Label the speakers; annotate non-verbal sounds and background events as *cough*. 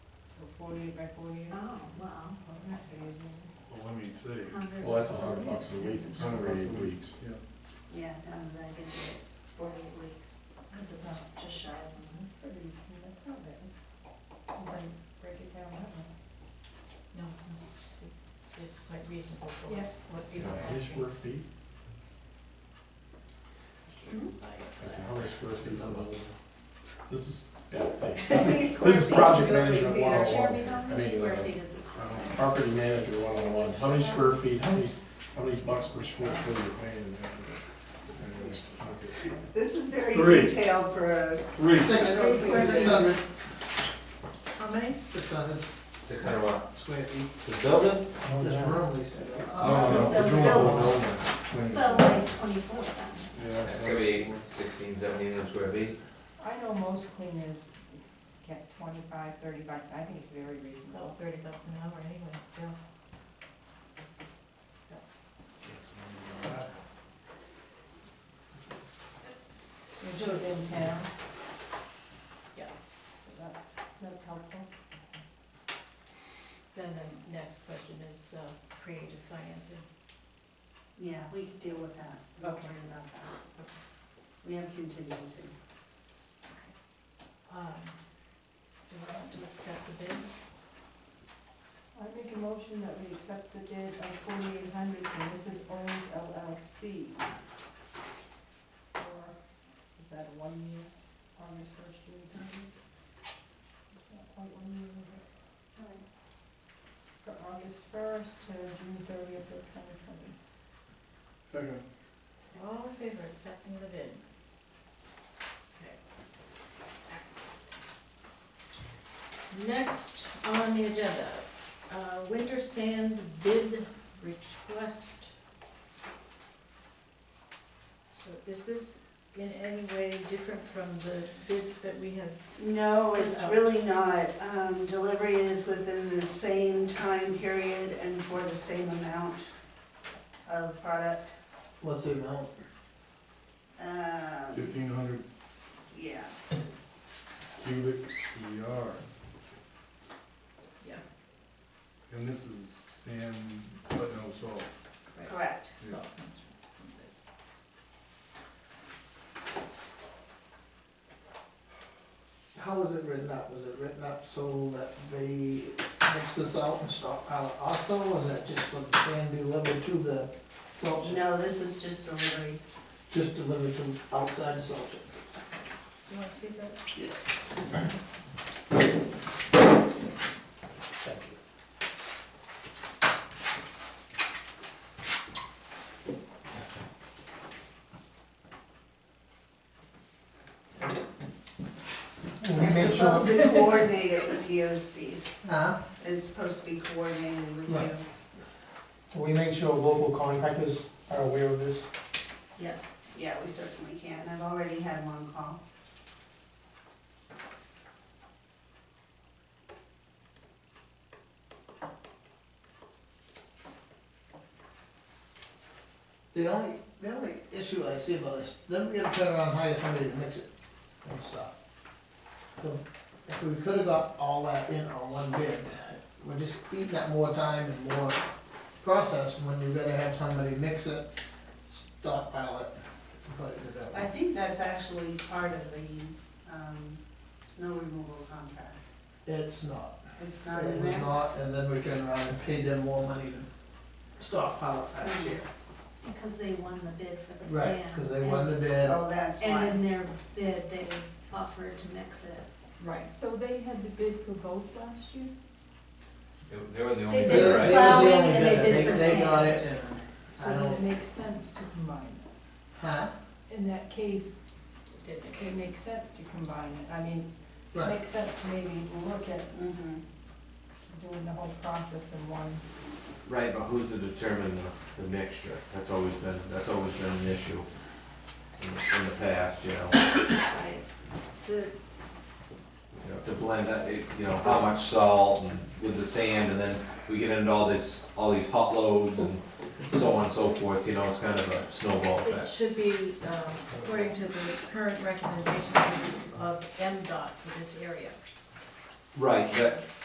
Speaker 1: forty-eight by forty-eight.
Speaker 2: Uh-huh.
Speaker 3: Oh, well,
Speaker 4: Well, let me see.
Speaker 3: hundred.
Speaker 5: Well, that's a hundred bucks a week, it's
Speaker 4: Hundred bucks a
Speaker 5: forty-eight
Speaker 4: week.
Speaker 5: weeks.
Speaker 4: Yeah.
Speaker 3: Yeah, times that, I guess it's forty-eight weeks, because it's just shy of a month.
Speaker 2: pretty, that's not bad. You can break it down that way.
Speaker 1: No, it's not. It's quite reasonable for
Speaker 2: Yeah.
Speaker 1: what, what people are
Speaker 5: How many
Speaker 1: asking.
Speaker 5: square feet?
Speaker 2: Mm-hmm.
Speaker 5: I said, how many square feet is on the, this is, yeah, see,
Speaker 3: *laughs*
Speaker 5: this is,
Speaker 3: Square
Speaker 5: is
Speaker 3: feet
Speaker 5: project
Speaker 3: building
Speaker 5: management
Speaker 3: theater.
Speaker 5: 101.
Speaker 3: Jeremy, how
Speaker 5: I
Speaker 3: many
Speaker 5: mean,
Speaker 3: square
Speaker 5: uh,
Speaker 3: feet is this?
Speaker 5: property manager one-on-one, how many square feet, how many, how many bucks per square foot are you paying? in there?
Speaker 3: This is very
Speaker 5: uh, Three.
Speaker 3: detailed for a.
Speaker 5: Three.
Speaker 3: Six.
Speaker 6: Six hundred,
Speaker 2: How many?
Speaker 6: six hundred
Speaker 7: Six hundred what?
Speaker 6: square feet,
Speaker 7: The building?
Speaker 5: Oh,
Speaker 6: this
Speaker 5: yeah.
Speaker 6: room, they said.
Speaker 5: Oh, No, no, we're doing the whole building.
Speaker 3: So like twenty-four times.
Speaker 5: Yeah.
Speaker 7: That's gonna be sixteen, seventeen hundred square feet.
Speaker 2: I know most cleaners get twenty-five, thirty bucks, I think it's very reasonable.
Speaker 1: About thirty bucks an hour anyway, yeah.
Speaker 2: And she was in town. Yeah. So that's, that's helpful.
Speaker 1: Then the next question is, uh, creative financing.
Speaker 3: Yeah, we can deal with that. Don't
Speaker 1: Okay.
Speaker 3: worry about that. We have contingency.
Speaker 1: Um, do we want to accept the bid?
Speaker 2: I make a motion that we accept the bid of forty-eight hundred from Mrs. Owens LLC. For, is that a one year, on this first year? It's not quite one year, is it? For August first to June thirtieth of twenty twenty.
Speaker 4: Second.
Speaker 1: All in favor of accepting the bid? Okay, excellent. Next on the agenda, uh, winter sand bid request. So is this in any way different from the bids that we have?
Speaker 3: No, it's
Speaker 1: Oh.
Speaker 3: really not. Um, delivery is within the same time period and for the same amount of product.
Speaker 6: What's the amount?
Speaker 3: Um,
Speaker 4: Fifteen hundred
Speaker 3: yeah,
Speaker 4: cubic yards.
Speaker 1: Yeah.
Speaker 4: And this is sand, but no salt.
Speaker 3: correct.
Speaker 1: So, that's from this.
Speaker 6: How was it written up? Was it written up so that they mix the salt and stockpile it also, or was that just for the sand delivered to the salt shed?
Speaker 3: No, this is just delivery.
Speaker 6: Just delivered to outside the salt shed?
Speaker 1: Do you wanna see that?
Speaker 6: Yes. Thank you.
Speaker 3: We're supposed to coordinate it with you, Steve.
Speaker 6: Huh?
Speaker 3: It's supposed to be coordinated with
Speaker 6: Right.
Speaker 3: you.
Speaker 6: Will we make sure local contractors are aware of this?
Speaker 1: Yes.
Speaker 3: Yeah, we certainly can. I've already had one call.
Speaker 6: The only, the only issue I see about this, then we gotta turn around and hire somebody to mix it and stuff. So, if we could've got all that in on one bid, we're just eating up more time and more process when you gotta have somebody mix it, stockpile it, and put it in the
Speaker 3: I
Speaker 6: bin.
Speaker 3: think that's actually part of the, um, snow removal contract.
Speaker 6: It's not,
Speaker 3: It's not
Speaker 6: it
Speaker 3: in
Speaker 6: was
Speaker 3: there?
Speaker 6: not, and then we turn around and paid them more money to stockpile it last year.
Speaker 8: Because they won the bid for the sand.
Speaker 6: Right, cause they won the bid,
Speaker 3: Oh, that's
Speaker 8: And
Speaker 3: why.
Speaker 8: in their bid, they offered to mix it.
Speaker 1: Right.
Speaker 2: So they had to bid for both last year?
Speaker 7: They- They were the only
Speaker 8: They
Speaker 6: They-
Speaker 7: bidder,
Speaker 6: they
Speaker 8: did.
Speaker 7: right?
Speaker 6: was the only
Speaker 8: Plowing and they
Speaker 6: bidder.
Speaker 8: did for
Speaker 6: They got
Speaker 8: sand.
Speaker 6: it and
Speaker 2: So
Speaker 6: I
Speaker 2: then it
Speaker 6: don't,
Speaker 2: makes sense to combine
Speaker 6: huh?
Speaker 2: it. In that case, it, it makes sense to combine it. I mean, it
Speaker 6: Right,
Speaker 2: makes sense to maybe look at
Speaker 3: Mm-hmm.
Speaker 2: doing the whole process in one.
Speaker 7: Right, but who's to determine the, the mixture? That's always been, that's always been an issue in, in the past, you know?
Speaker 3: Right.
Speaker 1: The,
Speaker 7: you know, to blend, that, it- you know, how much salt and with the sand, and then we get into all this, all these hot loads and so on and so forth, you know, it's kind of a snowball
Speaker 1: It
Speaker 7: effect.
Speaker 1: should be, um, according to the current recommendations of- of MDOT for this area.
Speaker 7: Right, that,